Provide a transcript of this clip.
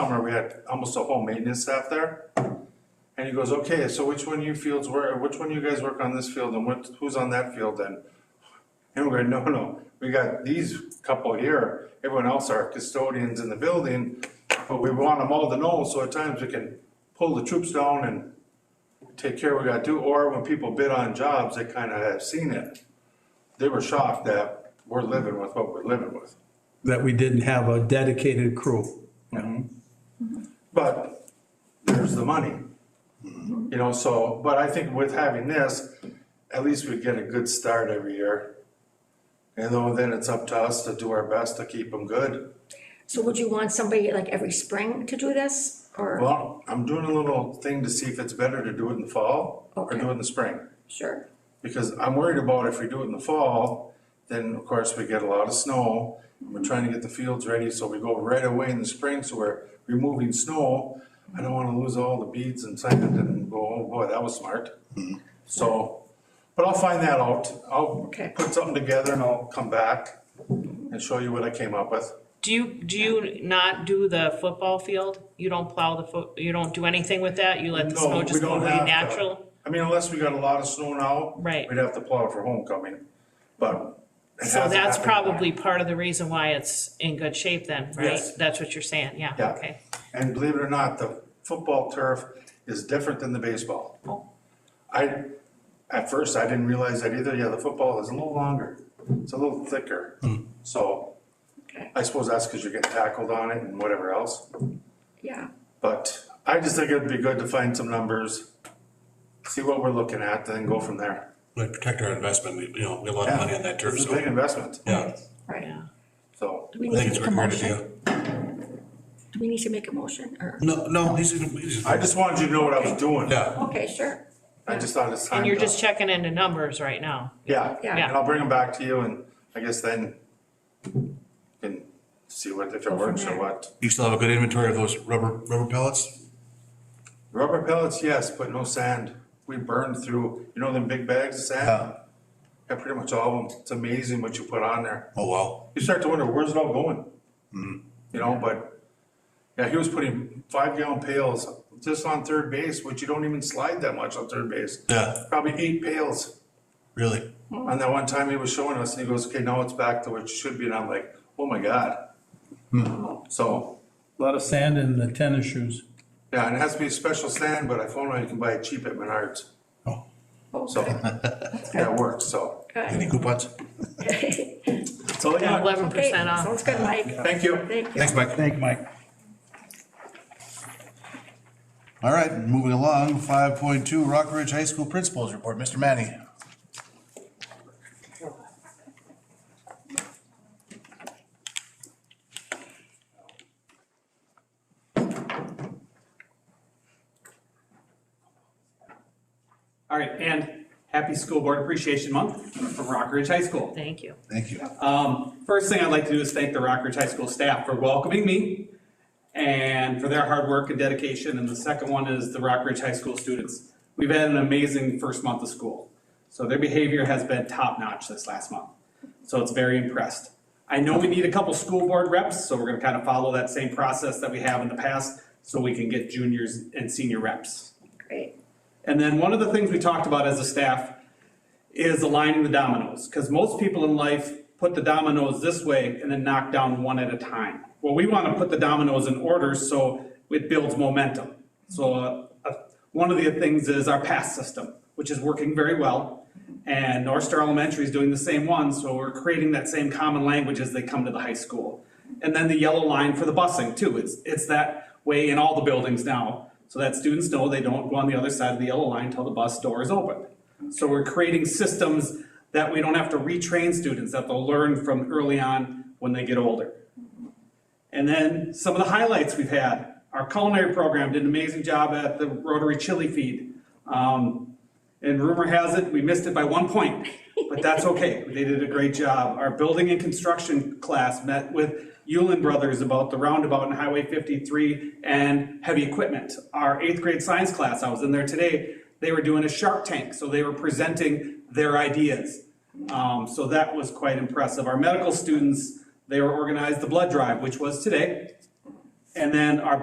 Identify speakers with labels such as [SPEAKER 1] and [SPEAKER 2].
[SPEAKER 1] summer, we had almost a whole maintenance staff there. And he goes, okay, so which one of you fields work, which one of you guys work on this field and what, who's on that field then? And we're going, no, no, we got these couple here, everyone else are custodians in the building, but we want them all to know, so at times we can pull the troops down and take care what we gotta do, or when people bid on jobs, they kinda have seen it. They were shocked that we're living with what we're living with.
[SPEAKER 2] that we didn't have a dedicated crew.
[SPEAKER 1] But there's the money. You know, so, but I think with having this, at least we get a good start every year. And though then it's up to us to do our best to keep them good.
[SPEAKER 3] So would you want somebody like every spring to do this or,
[SPEAKER 1] Well, I'm doing a little thing to see if it's better to do it in the fall or do
[SPEAKER 3] Okay.
[SPEAKER 1] it in the spring.
[SPEAKER 3] sure?
[SPEAKER 1] Because I'm worried about if we do it in the fall, then of course we get a lot of snow. We're trying to get the fields ready, so we go right away in the spring, so we're removing snow. I don't wanna lose all the beads and sand and go, oh boy, that was smart. So, but I'll find that out. I'll
[SPEAKER 3] Okay.
[SPEAKER 1] put something together and I'll come back and show you what I came up with.
[SPEAKER 4] Do you, do you not do the football field? You don't plow the foot, you don't do anything with that? You let the
[SPEAKER 1] No,
[SPEAKER 4] snow
[SPEAKER 1] we
[SPEAKER 4] just go
[SPEAKER 1] don't
[SPEAKER 4] away
[SPEAKER 1] have to.
[SPEAKER 4] natural?
[SPEAKER 1] I mean, unless we got a lot of snow now.
[SPEAKER 4] Right.
[SPEAKER 1] We'd have to plow for homecoming, but. it
[SPEAKER 4] So
[SPEAKER 1] hasn't happened
[SPEAKER 4] that's
[SPEAKER 1] yet.
[SPEAKER 4] probably part of the reason why it's in good shape then, right?
[SPEAKER 1] Yes.
[SPEAKER 4] That's what you're saying, yeah,
[SPEAKER 1] Yeah.
[SPEAKER 4] okay.
[SPEAKER 1] And believe it or not, the football turf is different than the baseball.
[SPEAKER 4] Oh.
[SPEAKER 1] I, at first, I didn't realize that either. Yeah, the football is a little longer. It's a little thicker.
[SPEAKER 5] Hmm.
[SPEAKER 1] So
[SPEAKER 3] Okay.
[SPEAKER 1] I suppose that's because you're getting tackled on it and whatever else.
[SPEAKER 3] Yeah,
[SPEAKER 1] But I just think it'd be good to find some numbers, see what we're looking at, then go from there.
[SPEAKER 5] We protect our investment, we- you know, we have a lot of money on that turf,
[SPEAKER 1] It's a
[SPEAKER 5] so,
[SPEAKER 1] big investment,
[SPEAKER 5] yeah,
[SPEAKER 3] right.
[SPEAKER 1] so.
[SPEAKER 3] Do we
[SPEAKER 5] I think
[SPEAKER 3] need
[SPEAKER 5] it's
[SPEAKER 3] to
[SPEAKER 5] a
[SPEAKER 3] make a
[SPEAKER 5] great
[SPEAKER 3] motion?
[SPEAKER 5] idea.
[SPEAKER 3] Do we need to make a motion or?
[SPEAKER 5] No, no, he's, he's,
[SPEAKER 1] I just wanted you to know what I was doing.
[SPEAKER 5] yeah,
[SPEAKER 3] Okay, sure.
[SPEAKER 1] I just thought it's time.
[SPEAKER 4] And you're
[SPEAKER 1] to-
[SPEAKER 4] just checking into numbers right now?
[SPEAKER 1] Yeah,
[SPEAKER 3] Yeah.
[SPEAKER 1] and I'll bring them back to you and I guess then you can see what, if it
[SPEAKER 3] from
[SPEAKER 1] works or
[SPEAKER 3] there.
[SPEAKER 1] what.
[SPEAKER 5] you still have a good inventory of those rubber, rubber pellets?
[SPEAKER 1] Rubber pellets, yes, but no sand. We burned through, you know them big bags of sand? Yeah, pretty much all of them. It's amazing what you put on there.
[SPEAKER 5] Oh, wow,
[SPEAKER 1] You start to wonder, where's it all going? You know, but, yeah, he was putting five gallon pails just on third base, which you don't even slide that much on third base.
[SPEAKER 5] yeah,
[SPEAKER 1] Probably eight pails.
[SPEAKER 5] really,
[SPEAKER 1] And that one time he was showing us and he goes, okay, now it's back to what it should be. And I'm like, oh my God.
[SPEAKER 5] Hmm.
[SPEAKER 1] So,
[SPEAKER 2] A Lot of sand in the tennis shoes.
[SPEAKER 1] yeah, and it has to be a special sand, but I found out you can buy it cheap at Menards.
[SPEAKER 5] Oh.
[SPEAKER 1] So, that works, so.
[SPEAKER 3] Okay.
[SPEAKER 5] any coupons?
[SPEAKER 1] That's all I got.
[SPEAKER 4] Eleven
[SPEAKER 3] Okay,
[SPEAKER 4] percent off.
[SPEAKER 3] sounds good, Mike.
[SPEAKER 1] Thank you.
[SPEAKER 3] Thank you.
[SPEAKER 5] Oh, Thanks, Mike.
[SPEAKER 2] Thank you, Mike.
[SPEAKER 5] All right, moving along, five point two, Rock Ridge High School Principals Report, Mr. Manny.
[SPEAKER 6] All right, and happy School Board Appreciation Month from Rock Ridge High School.
[SPEAKER 4] Thank you.
[SPEAKER 5] Thank you.
[SPEAKER 6] Um, first thing I'd like to do is thank the Rock Ridge High School staff for welcoming me and for their hard work and dedication. And the second one is the Rock Ridge High School students. We've had an amazing first month of school. So their behavior has been top-notch this last month. So it's very impressed. I know we need a couple school board reps, so we're gonna kind of follow that same process that we have in the past so we can get juniors and senior reps.
[SPEAKER 3] Great.
[SPEAKER 6] And then one of the things we talked about as a staff is aligning the dominoes, because most people in life put the dominoes this way and then knock down one at a time. Well, we want to put the dominoes in order so it builds momentum. So uh, uh, one of the things is our pass system, which is working very well. And North Star Elementary is doing the same one, so we're creating that same common language as they come to the high school. And then the yellow line for the busing too, it's, it's that way in all the buildings now, so that students know they don't go on the other side of the yellow line until the bus door is open. So we're creating systems that we don't have to retrain students, that they'll learn from early on when they get older. And then some of the highlights we've had. Our culinary program did an amazing job at the Rotary Chili Feed. Um, and rumor has it, we missed it by one point, but that's okay. They did a great job. Our building and construction class met with Yulin Brothers about the roundabout and Highway 53 and heavy equipment. Our eighth grade science class, I was in there today, they were doing a shark tank, so they were presenting their ideas. Um, so that was quite impressive. Our medical students, they were organized the blood drive, which was today. And then our